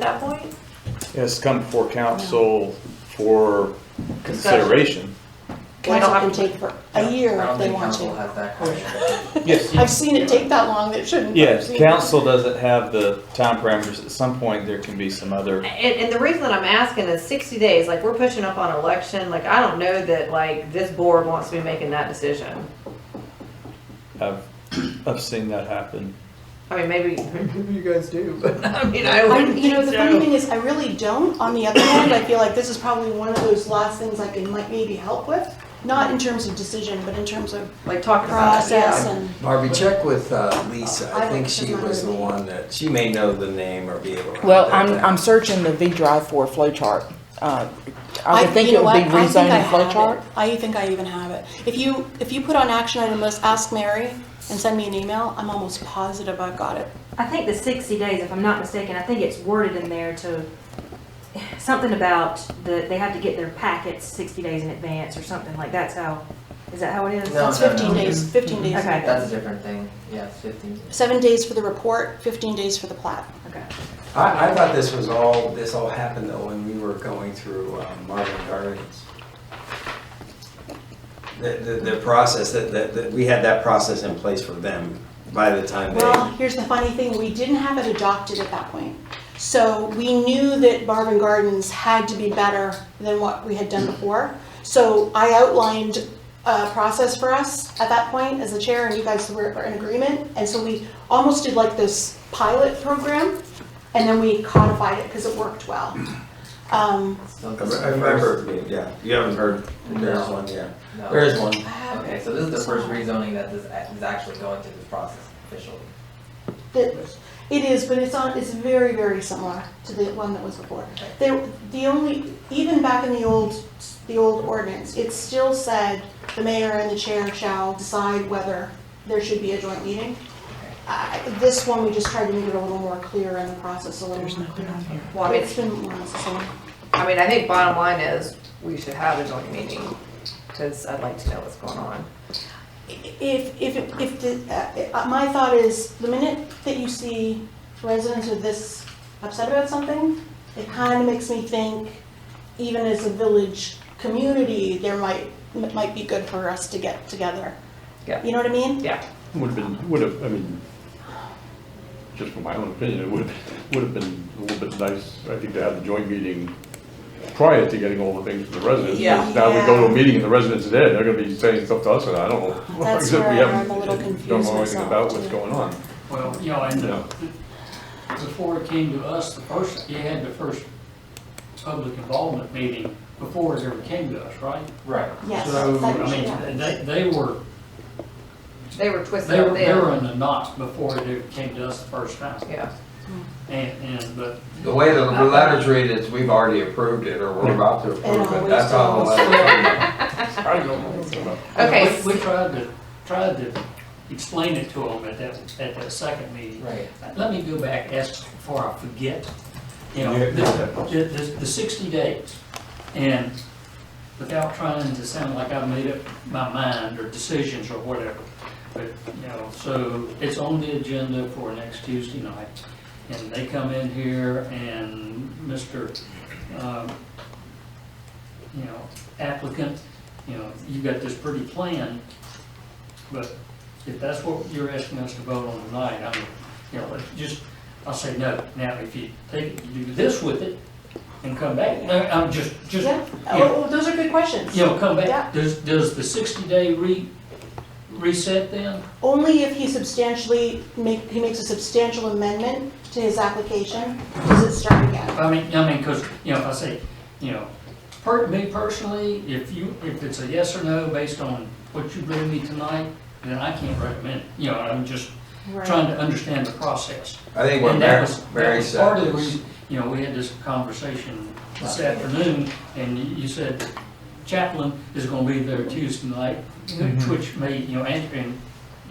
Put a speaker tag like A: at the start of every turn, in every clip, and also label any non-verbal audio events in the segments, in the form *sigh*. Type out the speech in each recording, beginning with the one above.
A: that point?
B: Yes, come before council for consideration.
A: We don't
C: Council
A: have
C: can
A: to-
C: take for a year if they want to.
D: I don't think council has that question.
B: Yes.
C: I've seen it take that long, it shouldn't. I've
B: Yes,
C: seen it.
B: council doesn't have the time parameters. At some point, there can be some other,
A: And, and the reason that I'm asking is sixty days, like, we're pushing up on election, like, I don't know that, like, this board wants to be making that decision.
B: I've, I've seen that happen.
A: I mean, maybe,
D: Maybe you guys do, but.
A: *laughs* I mean, I
C: I,
A: wouldn't
C: *laughs* you know, the funny
A: think
C: thing is, I really don't. On the other hand, I feel like this is probably one of those last things I can like maybe help with. Not in terms of decision, but in terms of
A: so, like, talking about it,
C: process
A: yeah.
C: and,
E: Barbie, check with uh, Lisa. I
C: I
E: think
C: looked
E: she
C: at my
E: was the
C: review.
E: one that, she may know the name or be able to.
F: Well, I'm, I'm searching the V drive for a flow chart. Uh, I would think
C: you
F: it
C: know
F: would be
C: what? I think I
F: rezoning flow
C: have
F: chart.
C: it. I think I even have it. If you, if you put on action item list, ask Mary and send me an email, I'm almost positive I've got it.
G: I think the sixty days, if I'm not mistaken, I think it's worded in there to, something about the, they have to get their packets sixty days in advance or something like that's how, is that how it is?
D: No,
C: It's
D: no, no.
C: fifteen days, fifteen days.
G: Okay.
D: That's a different thing, yeah, it's fifteen.
C: Seven days for the report, fifteen days for the plat.
G: Okay.
E: I, I thought this was all, this all happened though when we were going through um, Marvin Gardens. The, the, the process, that, that, that we had that process in place for them by the time they.
C: Well, here's the funny thing, we didn't have it adopted at that point. So we knew that Barb and Gardens had to be better than what we had done before. So I outlined a process for us at that point as the chair and you guys were were in agreement. And so we almost did like this pilot program and then we codified it because it worked well. Um,
D: So
E: I
D: this
E: re-
D: is the
E: I remember,
D: first-
E: yeah, you haven't heard, there's one, yeah,
D: no.
E: there is one.
C: I have
D: Okay,
C: it.
D: so this is the first rezoning that is, act- is actually going through this process officially.
C: That- It is, but it's on, it's very, very similar to the one that was before. There, the only, even back in the old, the old ordinance, it still said the mayor and the chair shall decide whether there should be a joint meeting. I- This one, we just tried to make it a little more clear in the process, a little more clear.
A: Well, I mean,
C: It's been more or less the same.
A: I mean, I think bottom line is, we should have a joint meeting, because I'd like to know what's going on.
C: If, if, if, the- uh, my thought is, the minute that you see residents are this upset about something, it kind of makes me think, even as a village community, there might, it might be good for us to get together.
A: Yeah.
C: You know what I mean?
A: Yeah,
H: Would have been, would have, I mean, just from my own opinion, it would, would have been a little bit nice, I think, to have the joint meeting prior to getting all the things from the residents. 'cause
A: Yeah.
H: Now we go to a meeting and the residents are there, they're gonna be saying stuff to us and I don't know. *laughs*
C: That's
H: except we
C: where I'm
H: haven't-
C: a little
H: Don't
C: confused
H: know anything
C: myself,
H: about what's
C: too.
H: going on.
I: Well, you know, and
H: Yeah.
I: before it came to us, the first, you had the first public involvement meeting before it ever came to us, right?
D: Right.
C: Yes.
I: So,
C: that-
I: I
C: yeah.
I: mean, they, they were,
A: they were twisted
I: they
A: up
I: were, they were
A: there,
I: in the knot before it ever came to us the first time.
A: yeah.
I: And, and, but
E: The way the letters read is we've already approved it or we're about to approve it, that's all the letters read.
H: I don't know what's going on.
A: Okay.
I: We we tried to, tried to explain it to them at that, at that second meeting.
D: Right.
I: Let me go back, ask before I forget, you know,
E: Yeah.
I: the, the, the sixty days. And without trying to sound like I've made up my mind or decisions or whatever. But, you know, so it's on the agenda for next Tuesday night. And they come in here and Mr., um, you know, applicant, you know, you've got this pretty plan. But if that's what you're asking us to vote on tonight, I mean, you know, let's just, I'll say no. Now, if you take, it, you do this with it and come back, no, I'm just, just,
C: Yeah,
I: you know,
C: oh, oh, those are good questions.
I: you know, come
C: Yeah.
I: back, does, does the sixty day re, reset then?
C: Only if he substantially make, he makes a substantial amendment to his application, does it start again.
I: I mean, I mean, cause, you know, if I say, you know, per, me personally, if you, if it's a yes or no based on what you bring me tonight, then I can't recommend, it. you know, I'm just trying to understand the process.
E: I think what
I: And that
E: Mary,
I: was, that
E: Mary
I: was
E: said
I: part of the
E: was-
I: reason, you know, we had this conversation this afternoon, and you- you said Chaplain is gonna be there Tuesday night, which may, you know, answer, and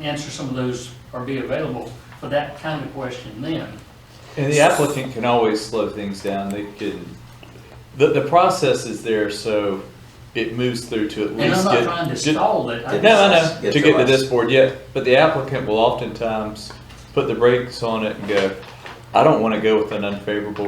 I: answer some of those, or be available for that kind of question then.
B: And the applicant can always slow things down. They can, the, the process is there, so it moves through to at
I: And I'm
B: least
I: not
B: get.
I: trying to
B: get-
I: stall it. I
B: No, I
I: just-
B: know,
E: Get
B: to
E: to
B: get to
E: us.
B: this board, yeah, but the applicant will oftentimes put the brakes on it and go, I don't wanna go with an unfavorable